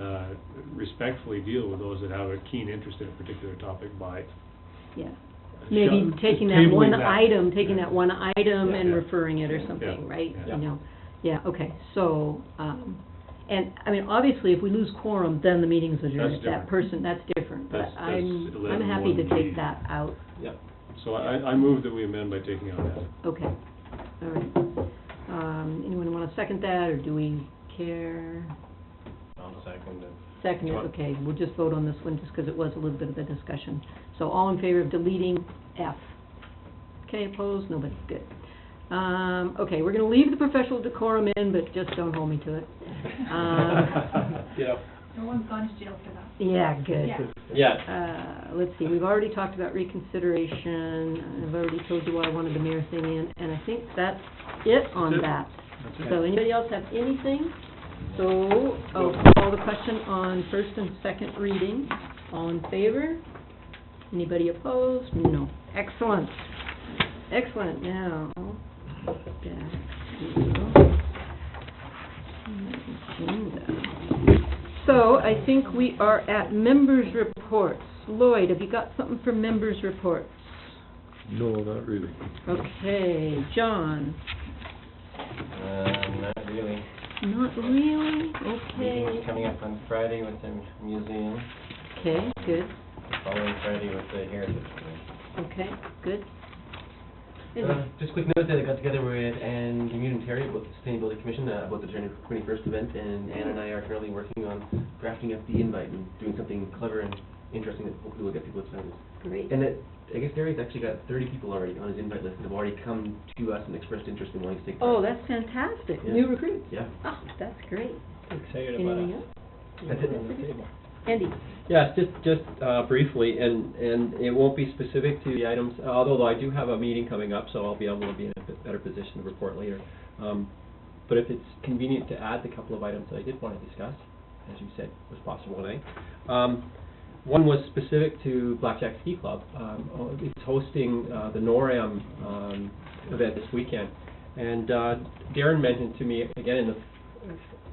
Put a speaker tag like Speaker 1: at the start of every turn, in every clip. Speaker 1: uh, respectfully deal with those that have a keen interest in a particular topic by
Speaker 2: yeah. Maybe
Speaker 1: shut-
Speaker 2: taking that one
Speaker 1: tabling that.
Speaker 2: item, taking that one item
Speaker 1: Yeah.
Speaker 2: and
Speaker 1: Yeah.
Speaker 2: referring it or
Speaker 1: Yeah.
Speaker 2: something, right?
Speaker 1: Yeah.
Speaker 2: You know, yeah, okay, so, um, and, I mean, obviously, if we lose quorum, then the meeting's adjourned.
Speaker 1: That's
Speaker 2: That
Speaker 1: different.
Speaker 2: person, that's different, but
Speaker 1: That's- that's
Speaker 2: I'm, I'm
Speaker 1: 11,
Speaker 2: happy to
Speaker 1: 1B.
Speaker 2: take that out.
Speaker 1: Yep. So I, I move that we amend by taking out that.
Speaker 2: Okay, all right. Um, anyone wanna second that, or do we care?
Speaker 3: I'll second it.
Speaker 2: Second, it, okay, we'll just vote on this one, just because it was a little bit of a discussion. So all in favor of deleting F? Okay, opposed, nobody, good. Um, okay, we're gonna leave the professional decorum in, but just don't hold me to it. Um,
Speaker 3: Yeah.
Speaker 4: No one's gone to jail for that.
Speaker 2: Yeah, good.
Speaker 4: Yeah.
Speaker 3: Yeah.
Speaker 2: Uh, let's see, we've already talked about reconsideration, I've already told you why I wanted the mayor thing in, and I think that's it on that.
Speaker 1: That's That's it.
Speaker 2: So anybody else have anything? So, I'll call the question on first and second reading. All in favor? Anybody opposed? No. Excellent. Excellent. Now, back to agenda. So I think we are at members' reports. Lloyd, have you got something for members' reports?
Speaker 5: No, not really.
Speaker 2: Okay, John? Uh,
Speaker 3: Um, not really.
Speaker 2: Not really?
Speaker 3: Meeting's
Speaker 2: Okay.
Speaker 3: coming up on Friday with the museum,
Speaker 2: Okay, good.
Speaker 3: following Friday with the Heritage Commission.
Speaker 2: Okay, good.
Speaker 3: Uh, Just a quick note that I got together with Anne Commute and Terry about the Sustainability Commission, uh, about the January twenty-first event, and Anne and I are currently working on drafting up the invite and doing something clever and interesting that hopefully will get people excited.
Speaker 2: Great.
Speaker 3: And it, I guess Terry's actually got thirty people already on his invite list that have already come to us and expressed interest in wanting to take part.
Speaker 2: Oh, that's fantastic.
Speaker 3: Yeah.
Speaker 2: New recruits.
Speaker 3: Yeah.
Speaker 2: Oh, that's great.
Speaker 6: Excited about
Speaker 2: Anything
Speaker 6: it.
Speaker 2: else?
Speaker 3: That's it.
Speaker 2: Andy?
Speaker 6: Yes, just, just uh, briefly, and, and it won't be specific to the items, although I do have a meeting coming up, so I'll be able to be in a bit better position to report later. Um, But if it's convenient to add the couple of items that I did want to discuss, as you said was possible tonight. Um, One was specific to Blackjack Ski Club. Um, oh, It's hosting uh, the NORAM um, event this weekend. And uh, Darren mentioned to me, again, in the,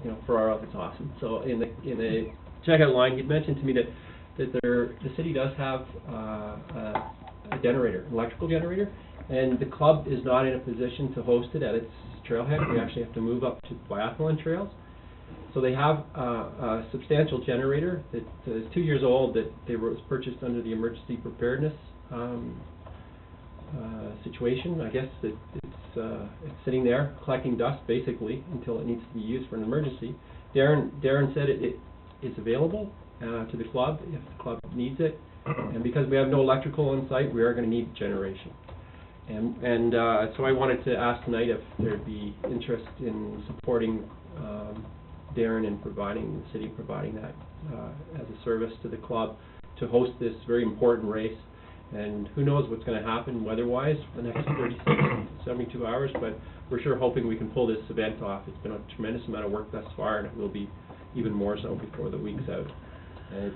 Speaker 6: you know, Ferraro, it's awesome. So in the, in the checkout line, he'd mentioned to me that, that there, the city does have uh, a a generator, an electrical generator, and the club is not in a position to host it at its trailhead. We actually have to move up to biathlon trails. So they have uh, a substantial generator that is two years old that they were, was purchased under the emergency preparedness um, uh, situation. I guess that it's, uh, it's sitting there collecting dust basically until it needs to be used for an emergency. Darren, Darren said it, it is available uh, to the club if the club needs it. And because we have no electrical on site, we are going to need generation. And, and uh, so I wanted to ask tonight if there'd be interest in supporting um, Darren and providing, the city providing that uh, as a service to the club to host this very important race. And who knows what's going to happen weather-wise the next 36, 72 hours, but we're sure hoping we can pull this event off. It's been a tremendous amount of work thus far, and it will be even more so before the week's out. And it's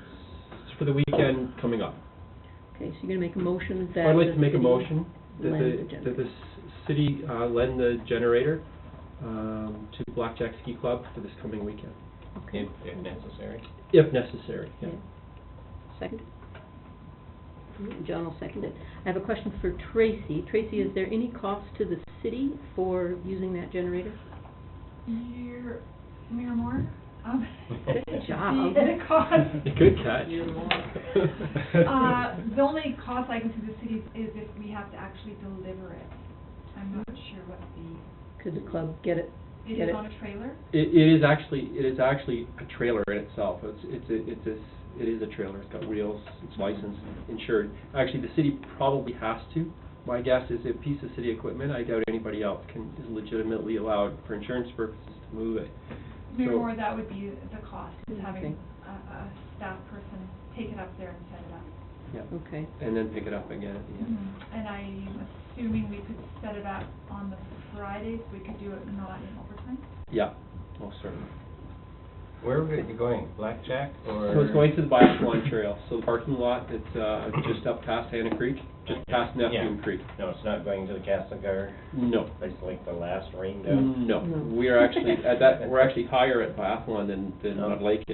Speaker 6: it's for the weekend coming up.
Speaker 2: Okay, so you're gonna make a motion that...
Speaker 6: I'd like to
Speaker 2: the
Speaker 6: make a
Speaker 2: city-
Speaker 6: motion that
Speaker 2: lend the
Speaker 6: the, that the
Speaker 2: generator.
Speaker 6: s- city uh, lend the generator um, to Blackjack Ski Club for this coming weekend,
Speaker 3: If, if necessary.
Speaker 6: if necessary, yeah.
Speaker 2: Okay. Second? John will second it. I have a question for Tracy. Tracy, is there any cost to the city for using that generator?
Speaker 4: Mayor, Mayor Moore? Um,
Speaker 2: Good job.
Speaker 4: The cost,
Speaker 6: Good catch.
Speaker 4: uh, the only cost I can see the city is if we have to actually deliver it. I'm not sure what the,
Speaker 2: Could the club get it? Get it.
Speaker 4: it is on a trailer?
Speaker 6: It, it is actually, it is actually a trailer in itself. It's, it's, a- it's, a- it is a trailer. It's got wheels, it's licensed, insured. Actually, the city probably has to. My guess is a piece of city equipment, I doubt anybody else can, is legitimately allowed for insurance purposes to move it.
Speaker 4: Mayor
Speaker 6: So-
Speaker 4: Moore, that would be the cost, is
Speaker 2: Okay.
Speaker 4: having a, a staff person take it up there and set it up. Mm-hmm.
Speaker 6: Yeah,
Speaker 2: Okay,
Speaker 6: and then pick it up again at the end.
Speaker 4: And I'm assuming we could set it up on the Fridays, we could do it not in overtime?
Speaker 6: Yeah, most certainly.
Speaker 3: Where were you going, Blackjack or?
Speaker 6: So it's going to the biathlon trail, so the parking lot that's, uh, just up past Hannah Creek, just past Neptune
Speaker 3: Yeah.
Speaker 6: Creek.
Speaker 3: No, it's not going to the Castlegar,
Speaker 6: No,
Speaker 3: place like the last rain down.
Speaker 6: no,
Speaker 2: No.
Speaker 6: we are actually, at that, we're actually higher at biathlon than, than
Speaker 3: No.
Speaker 6: Mud Lake is.